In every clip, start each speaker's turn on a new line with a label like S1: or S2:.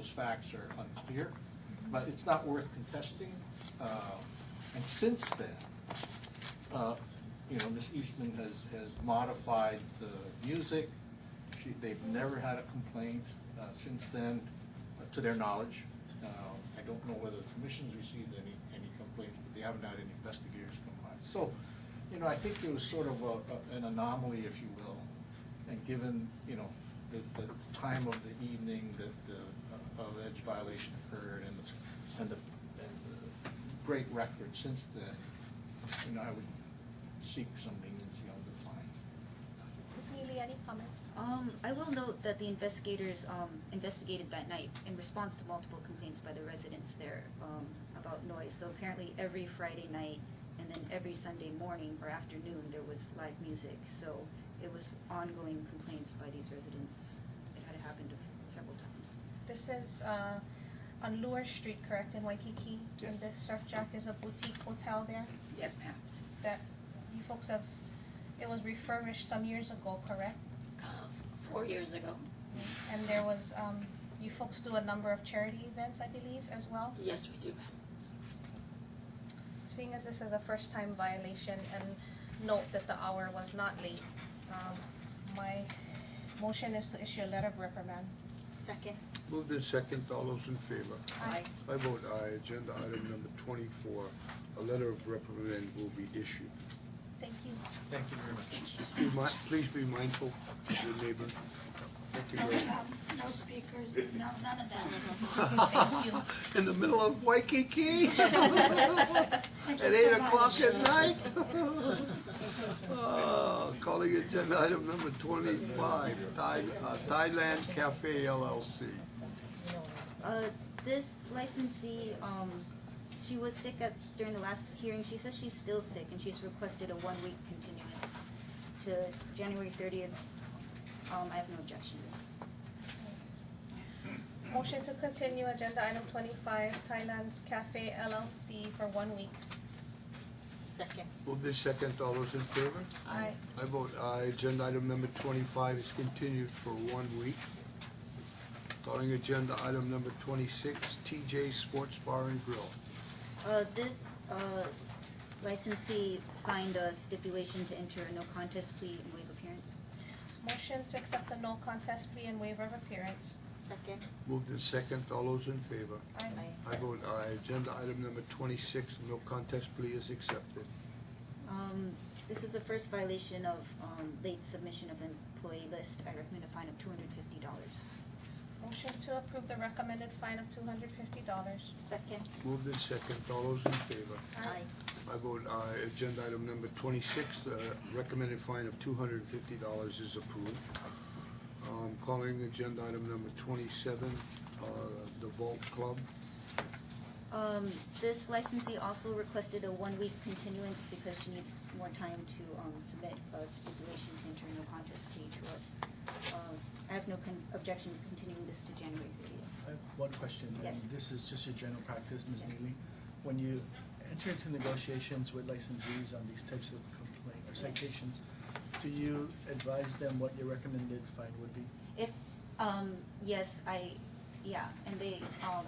S1: facts are unclear, but it's not worth contesting. Uh, And since then, uh, you know, Miss Eastman has, has modified the music. She, they've never had a complaint uh, since then, uh, to their knowledge. Uh, I don't know whether the commission's received any, any complaints, but they haven't had any investigators come by. So, you know, I think there was sort of a, a- an anomaly, if you will, and given, you know, the, the time of the evening that the uh, alleged violation occurred and the, and the, and the great record since then, you know, I would seek some leniency on the fine.
S2: Ms. Neely, any comment?
S3: Um, I will note that the investigators, um, investigated that night in response to multiple complaints by the residents there, um, about noise. So apparently every Friday night and then every Sunday morning or afternoon, there was live music. So it was ongoing complaints by these residents. It had happened several times.
S4: This is uh, on Lure Street, correct, in Waikiki? And
S1: Yes.
S4: the Surf Jack is a boutique hotel there
S5: Yes, ma'am.
S4: that you folks have, it was refurbished some years ago, correct?
S5: Uh, four years ago.
S4: And there was, um, you folks do a number of charity events, I believe, as well?
S5: Yes, we do, ma'am.
S4: Seeing as this is a first-time violation and note that the hour was not late, um, my motion is to issue a letter of reprimand.
S2: Second.
S6: Moved in second, all those in favor?
S4: Aye.
S6: I vote aye. Agenda item number twenty-four, a letter of reprimand will be issued.
S4: Thank you.
S1: Thank you very much.
S5: Thank you so
S6: Be mi-
S5: much.
S6: please be mindful of your neighbor. Thank you
S7: No
S6: very much.
S7: drums, no speakers, no, none of
S4: Mm-hmm.
S7: that.
S4: Thank you.
S6: In the middle of Waikiki?
S7: Thank you
S6: At
S7: so
S6: eight o'clock
S7: much.
S6: at night? Oh, Calling agenda item number twenty-five, Thai- uh, Thailand Cafe LLC.
S3: Uh, this licensee, um, she was sick at, during the last hearing, she says she's still sick, and she's requested a one-week continuance to January thirtieth. Um, I have no objection.
S4: Motion to continue agenda item twenty-five, Thailand Cafe LLC for one week.
S2: Second.
S6: Moved in second, all those in favor?
S4: Aye.
S6: I vote aye. Agenda item number twenty-five is continued for one week. Calling agenda item number twenty-six, TJ Sports Bar and Grill.
S3: Uh, this, uh, licensee signed a stipulation to enter a no contest plea and waive appearance.
S4: Motion to accept the no contest plea and waiver of appearance.
S2: Second.
S6: Moved in second, all those in favor?
S4: Aye.
S6: I vote aye. Agenda item number twenty-six, no contest plea is accepted.
S3: Um, this is a first violation of, um, late submission of employee list. I recommend a fine of two hundred fifty dollars.
S4: Motion to approve the recommended fine of two hundred fifty dollars.
S2: Second.
S6: Moved in second, all those in favor?
S2: Aye.
S6: I vote aye. Agenda item number twenty-six, the recommended fine of two hundred and fifty dollars is approved. Um, calling agenda item number twenty-seven, uh, the Vault Club.
S3: Um, this licensee also requested a one-week continuance because she needs more time to, um, submit a stipulation to enter no contest plea to us. Uh, I have no con- objection to continuing this to January thirtieth.
S8: I have one question. and
S3: Yes.
S8: This is just your general practice, Ms.
S3: Yes.
S8: Neely. When you enter into negotiations with licensees on these types of complaint or citations, do you advise them what your recommended fine would be?
S3: If, um, yes, I, yeah, and they, um,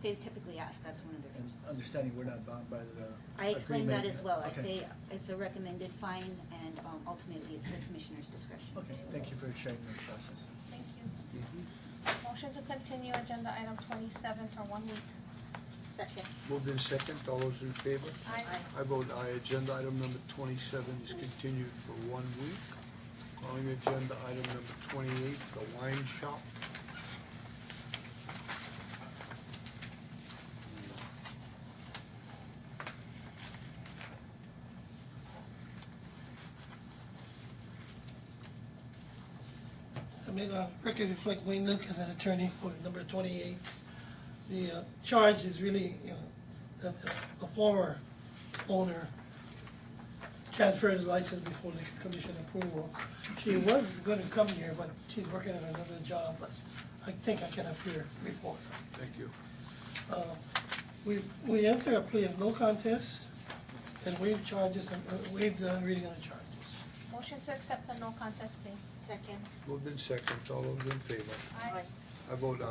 S3: they typically ask, that's one of their
S8: And
S3: concerns.
S8: understanding we're not bound by the agreement.
S3: I explain that as well. I
S8: Okay.
S3: say it's a recommended fine and, um, ultimately it's the commissioner's discretion.
S8: Okay, thank you for sharing that process.
S4: Thank you. Motion to continue agenda item twenty-seven for one week.
S2: Second.
S6: Moved in second, all those in favor?
S4: Aye.
S6: I vote aye. Agenda item number twenty-seven is continued for one week. Calling agenda item number twenty-eight, the wine shop.
S9: So may the record reflect Wayne Luke as an attorney for number twenty-eight. The uh, charge is really, you know, that the- the former owner transferred the license before the commission approval. She was gonna come here, but she's working on another job, but I think I can appear before her.
S6: Thank you.
S9: Uh, We, we enter a plea of no contest and waive charges, and uh, waive the reading of the charges.
S4: Motion to accept the no contest plea.
S2: Second.
S6: Moved in second, all those in favor?
S2: Aye.
S6: I vote aye.